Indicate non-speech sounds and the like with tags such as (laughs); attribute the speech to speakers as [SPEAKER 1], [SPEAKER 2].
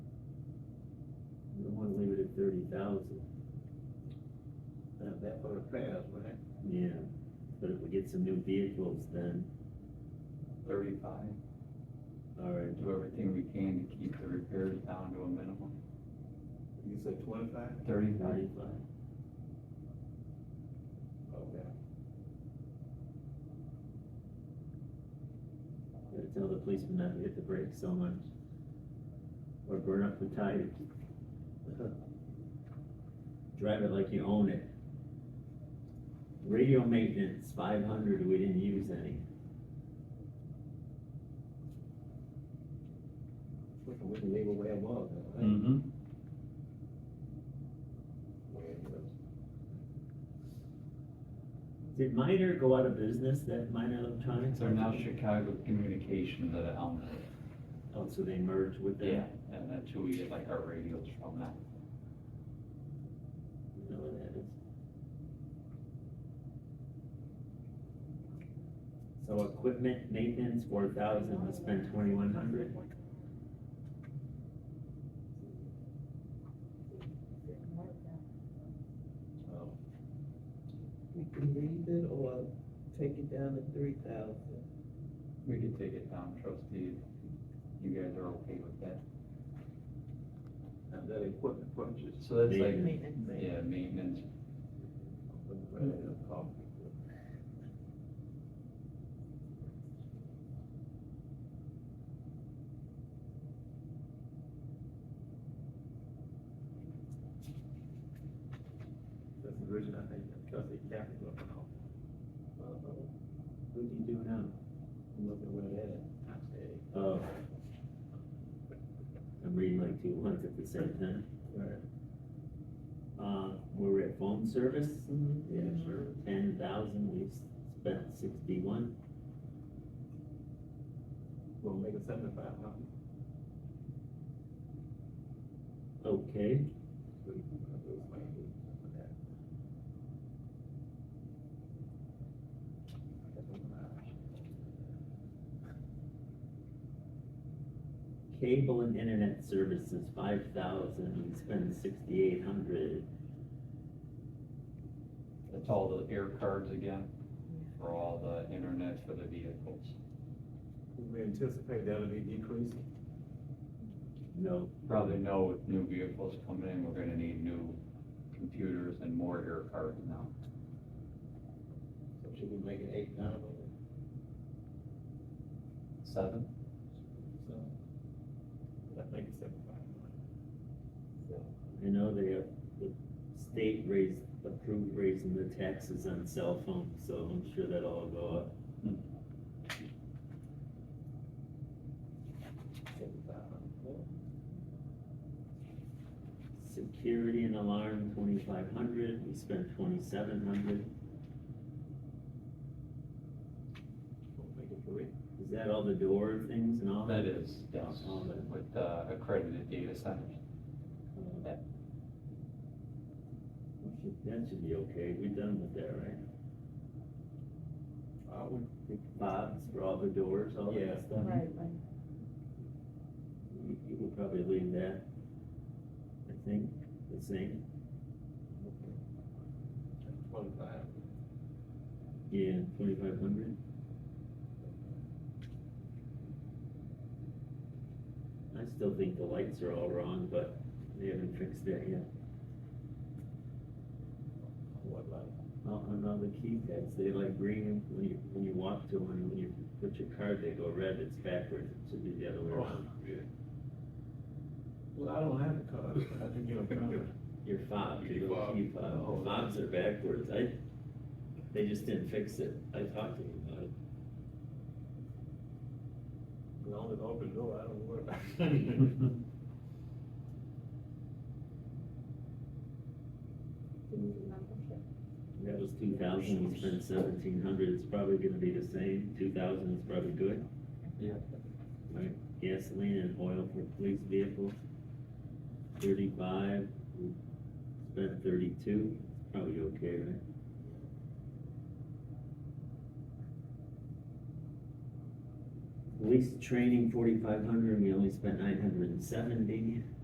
[SPEAKER 1] thirty thousand. Not that
[SPEAKER 2] for
[SPEAKER 1] far,
[SPEAKER 2] the past, wasn't it?
[SPEAKER 1] yeah, but if we get some new vehicles, then,
[SPEAKER 2] Thirty-five,
[SPEAKER 1] all right,
[SPEAKER 3] do everything we can to keep the repairs down to a minimum,
[SPEAKER 2] you said twenty-five?
[SPEAKER 3] thirty-five.
[SPEAKER 1] thirty-five,
[SPEAKER 2] Okay.
[SPEAKER 1] gotta tell the policeman not to hit the brakes so much. Or burn up the
[SPEAKER 3] (laughs)
[SPEAKER 1] tires. Drive it like you own it. Radio maintenance, five hundred, we didn't use any,
[SPEAKER 2] We can, we can leave it where it was. huh?
[SPEAKER 3] Mm-hmm.
[SPEAKER 2] Where it was.
[SPEAKER 1] did Minor go out of business, that Minor Electronics?
[SPEAKER 3] They're now Chicago Communications at Elm.
[SPEAKER 1] Oh, so they merged with them?
[SPEAKER 3] And that's who we get like our radios from now.
[SPEAKER 1] You know where that is? So equipment maintenance, four thousand, we spent twenty-one hundred.
[SPEAKER 2] Oh,
[SPEAKER 4] We
[SPEAKER 2] Mm-hmm.
[SPEAKER 4] can leave it or take it down to three thousand.
[SPEAKER 3] We could take it down, trustee, if you guys are okay with that.
[SPEAKER 2] And that equipment purchase.
[SPEAKER 3] So that's like,
[SPEAKER 4] Maintenance.
[SPEAKER 3] yeah, maintenance,
[SPEAKER 2] uh, Mm-hmm. That's the reason I think, because they capped it up and all. Uh-huh.
[SPEAKER 1] What do you do now?
[SPEAKER 2] Look at where that is.
[SPEAKER 1] Oh. I'm reading like two ones at the same time.
[SPEAKER 2] Right.
[SPEAKER 1] Uh, we're at phone service, Mm-hmm.
[SPEAKER 2] Yeah, sure.
[SPEAKER 1] ten thousand, we spent sixty-one.
[SPEAKER 2] We'll make it seventy-five hundred.
[SPEAKER 1] Okay, cable and internet services, five thousand, we spent sixty-eight hundred.
[SPEAKER 3] that's all the air cards again, for all the internet for the vehicles.
[SPEAKER 2] We anticipate that'll be decreasing.
[SPEAKER 1] No,
[SPEAKER 3] Probably know with new vehicles coming in, we're gonna need new computers and more air cards now.
[SPEAKER 2] So should we make it eight thousand?
[SPEAKER 3] Seven?
[SPEAKER 2] So, that make it seventy-five hundred.
[SPEAKER 1] I know they have, the state raised, approved raising the taxes on cell phones, so I'm sure that'll all go up.
[SPEAKER 2] Seventy-five hundred.
[SPEAKER 1] Security and alarm, twenty-five hundred, we spent twenty-seven hundred,
[SPEAKER 2] We'll make it three.
[SPEAKER 1] is that all the door things and all that?
[SPEAKER 3] That is, yes,
[SPEAKER 1] All that.
[SPEAKER 3] with uh, accredited data centers.
[SPEAKER 1] Uh, We should- That should be okay, we're done with that, right?
[SPEAKER 2] I would,
[SPEAKER 1] Bob's for all the doors, all
[SPEAKER 2] Yeah.
[SPEAKER 1] that stuff?
[SPEAKER 5] Right, right.
[SPEAKER 1] You, you would probably leave that, I think, the same,
[SPEAKER 2] twenty-five.
[SPEAKER 1] yeah, twenty-five hundred. I still think the lights are all wrong, but they haven't fixed that yet.
[SPEAKER 2] What like?
[SPEAKER 1] Well, and on the keypads, they like green, when you, when you walk to one, when you put your card, they go red, it's backwards, it should be the other way around.
[SPEAKER 2] Well, I don't have the card, I can get a card.
[SPEAKER 1] Your fob, your little
[SPEAKER 6] Fob.
[SPEAKER 1] key fob, the fobs are backwards, I, they just didn't fix it, I talked to them about it.
[SPEAKER 2] As long as the open door, I don't worry about it.
[SPEAKER 1] That was two thousand, we spent seventeen hundred, it's probably gonna be the same, two thousand is probably good.
[SPEAKER 3] Yeah.
[SPEAKER 1] Right, gasoline and oil for police vehicles, thirty-five, we spent thirty-two, It's probably okay, right? Police training, forty-five hundred, we only spent nine hundred and seventy.